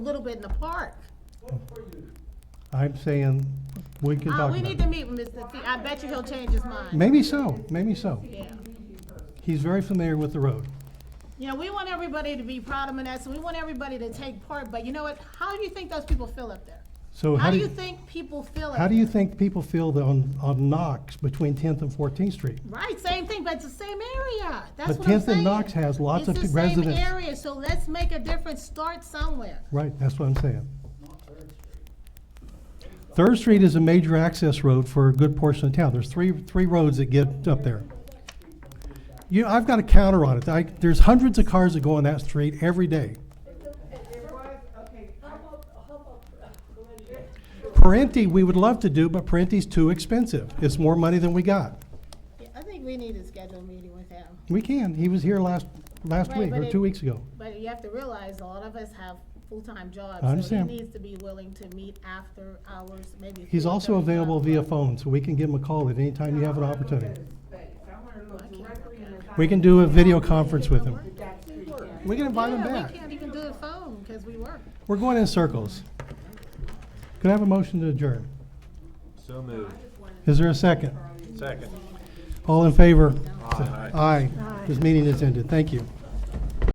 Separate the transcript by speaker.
Speaker 1: a little bit in the park.
Speaker 2: I'm saying, we can
Speaker 1: Uh,
Speaker 2: talk
Speaker 1: we
Speaker 2: about
Speaker 1: need
Speaker 2: it.
Speaker 1: to meet with Mr. T. I bet you he'll change his mind.
Speaker 2: Maybe so, maybe so.
Speaker 1: Yeah.
Speaker 2: He's very familiar with the road.
Speaker 1: You know, we want everybody to be proud of Menneson. We want everybody to take part, but you know what? How do you think those people feel up there?
Speaker 2: So
Speaker 1: How do you think people feel?
Speaker 2: How
Speaker 1: up
Speaker 2: do you think people feel the- on, on Knox between Tenth and Fourteenth Street?
Speaker 1: Right, same thing, but it's the same area. That's
Speaker 2: But
Speaker 1: what I'm saying.
Speaker 2: 10th and Knox has lots of
Speaker 1: It's the same
Speaker 2: residents.
Speaker 1: area, so let's make a difference, start somewhere.
Speaker 2: Right, that's what I'm saying. Third Street is a major access road for a good portion of town. There's three, three roads that get up there. You, I've got a counter on it. I, there's hundreds of cars that go on that street every day. Parenti, we would love to do, but Parenti's too expensive. It's more money than we got.
Speaker 1: Yeah, I think we need to schedule a meeting with him,
Speaker 2: We can. He was here last, last
Speaker 1: Right,
Speaker 2: week
Speaker 1: but
Speaker 2: or
Speaker 1: it-
Speaker 2: two weeks ago.
Speaker 1: but you have to realize a lot of us have full-time jobs.
Speaker 2: understand.
Speaker 1: So he needs to be willing to meet after hours, maybe.
Speaker 2: He's
Speaker 1: 4:30,
Speaker 2: also available
Speaker 1: five
Speaker 2: via
Speaker 1: o'clock.
Speaker 2: phone, so we can give him a call at any time you have an opportunity.
Speaker 3: Well,
Speaker 2: We can do a video conference with him. We can invite him
Speaker 1: Yeah,
Speaker 2: back.
Speaker 1: we can't even do it phone, because we work.
Speaker 2: We're going in circles. Could I have a motion to adjourn?
Speaker 4: So moved.
Speaker 2: Is there a second?
Speaker 4: Second.
Speaker 2: All in favor? Aye. This meeting is ended. Thank you.